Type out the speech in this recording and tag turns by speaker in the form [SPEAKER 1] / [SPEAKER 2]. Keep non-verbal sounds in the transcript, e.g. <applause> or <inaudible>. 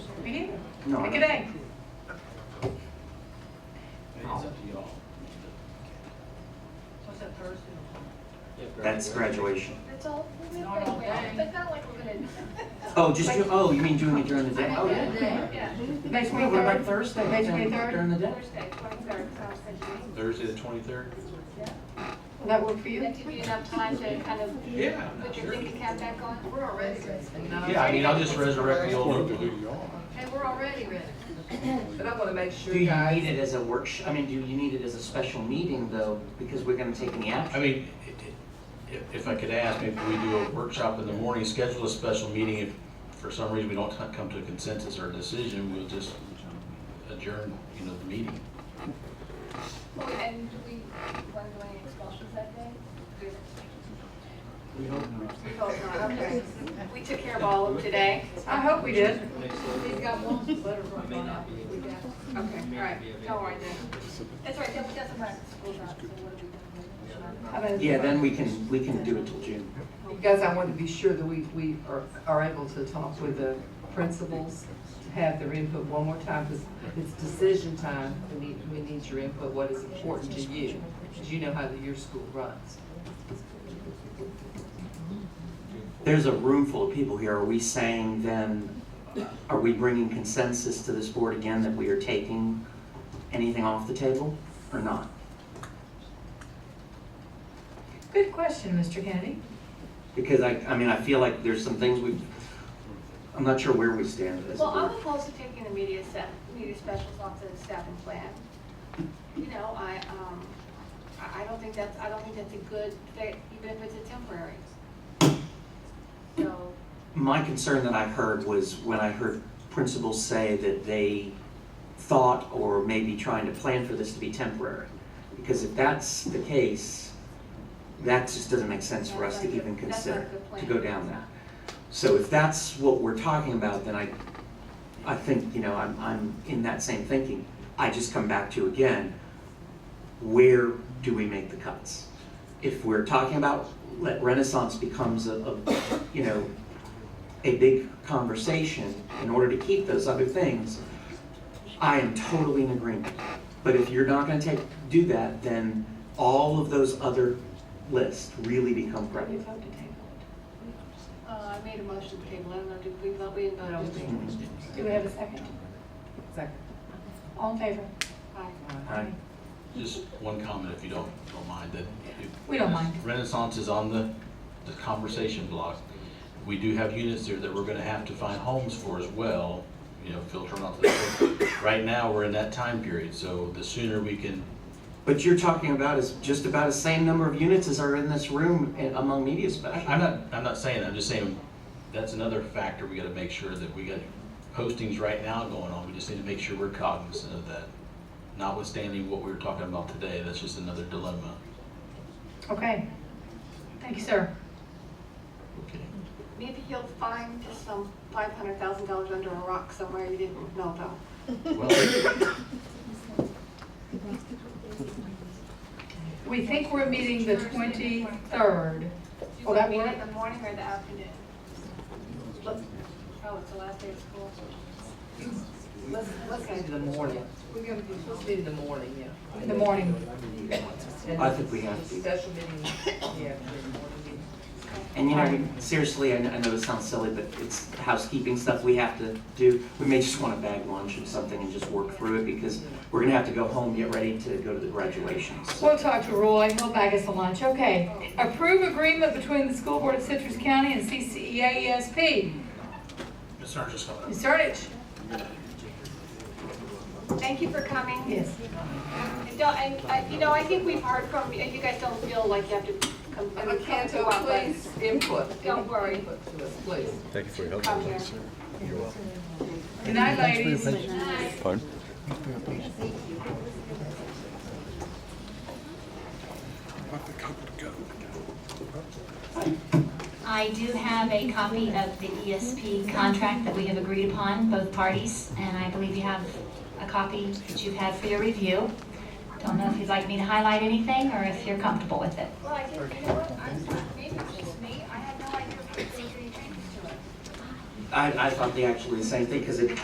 [SPEAKER 1] You need it?
[SPEAKER 2] No, I
[SPEAKER 1] Pick a
[SPEAKER 2] don't.
[SPEAKER 1] day.
[SPEAKER 3] It's up to y'all.
[SPEAKER 1] What's that Thursday?
[SPEAKER 2] That's graduation.
[SPEAKER 4] That's all, we
[SPEAKER 1] Not all day.
[SPEAKER 4] but not like we're gonna.
[SPEAKER 2] Oh, just, do- oh, you mean doing it during the day? Oh,
[SPEAKER 4] Yeah,
[SPEAKER 2] yeah.
[SPEAKER 4] yeah.
[SPEAKER 2] Next week, what about Thursday?
[SPEAKER 1] Next week,
[SPEAKER 2] During-
[SPEAKER 1] third?
[SPEAKER 2] During the day?
[SPEAKER 4] Thursday, twenty-third, sounds good
[SPEAKER 3] Thursday, the twenty-third?
[SPEAKER 1] Will that work for
[SPEAKER 4] to me.
[SPEAKER 1] you?
[SPEAKER 4] That give you enough time to kind of
[SPEAKER 3] Yeah.
[SPEAKER 4] put your thinking cap back on.
[SPEAKER 5] We're already ready.
[SPEAKER 3] Yeah, I mean, I'll just resurrect the old one.
[SPEAKER 5] And we're already ready. <clears throat> But I wanna make sure
[SPEAKER 2] Do you need
[SPEAKER 5] guys,
[SPEAKER 2] it as a workshop, I mean, do you need it as a special meeting though, because we're gonna take any
[SPEAKER 3] I
[SPEAKER 2] action?
[SPEAKER 3] mean, i- i- if I could ask, maybe we do a workshop in the morning, schedule a special meeting. If for some reason we don't co- come to a consensus or a decision, we'll just adjourn, you know, the meeting.
[SPEAKER 4] Well, And do we want to do any expulsions that day?
[SPEAKER 6] We hope not.
[SPEAKER 4] We hope not, okay. We took care of all of them today.
[SPEAKER 1] I hope we did.
[SPEAKER 4] He's got one letter from
[SPEAKER 6] may not be
[SPEAKER 4] We got-
[SPEAKER 1] Okay, all right.
[SPEAKER 4] Don't worry then. That's right, that doesn't matter, school's out, so what do we do?
[SPEAKER 1] How about-
[SPEAKER 2] Yeah, then we can, we can do it till June.
[SPEAKER 5] because I want to be sure that we, we are, are able to talk with the principals, to have their input one more time, because it's decision time, we need, we need your input, what is important to you, because you know how your school runs.
[SPEAKER 2] There's a room full of people here. Are we saying then, are we bringing consensus to this board again that we are taking anything off the table or not?
[SPEAKER 1] Good question, Mr. Kennedy.
[SPEAKER 2] Because I, I mean, I feel like there's some things we, I'm not sure where we stand as a
[SPEAKER 4] Well, I'm
[SPEAKER 2] board.
[SPEAKER 4] opposed to taking the media staff, media specials off the staffing plan. You know, I, um, I, I don't think that's, I don't think that's a good fit, even if it's a temporary. So,
[SPEAKER 2] My concern that I heard was when I heard principals say that they thought or maybe trying to plan for this to be temporary. Because if that's the case, that just doesn't make sense for us to
[SPEAKER 4] That's not a
[SPEAKER 2] even
[SPEAKER 4] good- that's not a
[SPEAKER 2] consider,
[SPEAKER 4] good
[SPEAKER 2] to
[SPEAKER 4] plan.
[SPEAKER 2] go down that. So if that's what we're talking about, then I, I think, you know, I'm, I'm in that same thinking. I just come back to again, where do we make the cuts? If we're talking about, let Renaissance becomes a, a, you know, a big conversation in order to keep those other things, I am totally in agreement. But if you're not gonna take, do that, then all of those other lists really become
[SPEAKER 1] We
[SPEAKER 2] prevalent.
[SPEAKER 1] vote to table
[SPEAKER 4] uh, I made a motion to table, I don't know, did we vote, we didn't vote on it.
[SPEAKER 1] it. Do we have a second?
[SPEAKER 5] Second.
[SPEAKER 1] All in favor?
[SPEAKER 4] Aye.
[SPEAKER 2] Alright.
[SPEAKER 3] Just one comment, if you don't, don't mind, that. if-
[SPEAKER 1] We don't mind.
[SPEAKER 3] Renaissance is on the, the conversation block. We do have units there that we're gonna have to find homes for as well, you know, filter them out. to the- Right now, we're in that time period, so the sooner we can,
[SPEAKER 2] But you're talking about is just about the same number of units as are in this room in- among media
[SPEAKER 3] I-
[SPEAKER 2] specialists.
[SPEAKER 3] I'm not, I'm not saying, that, I'm just saying, that's another factor, we gotta make sure that we got postings right now going on, we just need to make sure we're cognizant of that. Notwithstanding what we were talking about today, that's just another dilemma.
[SPEAKER 1] Okay. Thank you, sir.
[SPEAKER 3] Okay.
[SPEAKER 4] Maybe you'll find some five hundred thousand dollars under a rock somewhere you didn't know about.
[SPEAKER 3] Well,
[SPEAKER 1] We think we're meeting the 23rd.
[SPEAKER 4] Do you
[SPEAKER 1] Will
[SPEAKER 4] want
[SPEAKER 1] that
[SPEAKER 4] me
[SPEAKER 1] work?
[SPEAKER 4] in the Oh, morning or the afternoon? Oh, it's the last day of school.
[SPEAKER 5] Let's, let's do the morning. We're gonna do, let's do the morning, yeah.
[SPEAKER 1] In the morning.
[SPEAKER 2] I think we have to.
[SPEAKER 5] Special meeting, yeah, the morning meeting.
[SPEAKER 2] And you know, we- seriously, I know, I know this sounds silly, but it's housekeeping stuff we have to do. We may just want to bag lunch or something and just work through it because we're gonna have to go home, get ready to go to the graduations.
[SPEAKER 1] We'll talk to Roy, he'll bag us a lunch, okay. Approve agreement between the School Board of Citrus County and E CCEA ESP.
[SPEAKER 3] Ms. Sargent's coming up.
[SPEAKER 1] Ms. Erdich?
[SPEAKER 4] Thank you for coming.
[SPEAKER 1] Yes.
[SPEAKER 4] And don't- And, I- you know, I think we've heard from, you you guys don't feel like you have to come. I
[SPEAKER 5] And
[SPEAKER 4] mean, come to
[SPEAKER 5] Canto,
[SPEAKER 4] our place.
[SPEAKER 5] please, input.
[SPEAKER 4] Don't worry,
[SPEAKER 5] Input to us, please.
[SPEAKER 7] Thank you for your help.
[SPEAKER 4] come here.
[SPEAKER 1] Good night, ladies.
[SPEAKER 7] Pardon?
[SPEAKER 8] I do have a copy of the ESP contract that we have agreed upon, both parties, and I believe you have a copy that you've had for your review. Don't know if you'd like me to highlight anything or if you're comfortable with it.
[SPEAKER 4] Well, I guess, you know what, I'm sorry, maybe it's just me, I have no idea if there's any changes to it.
[SPEAKER 2] I, I thought they actually the same thing because it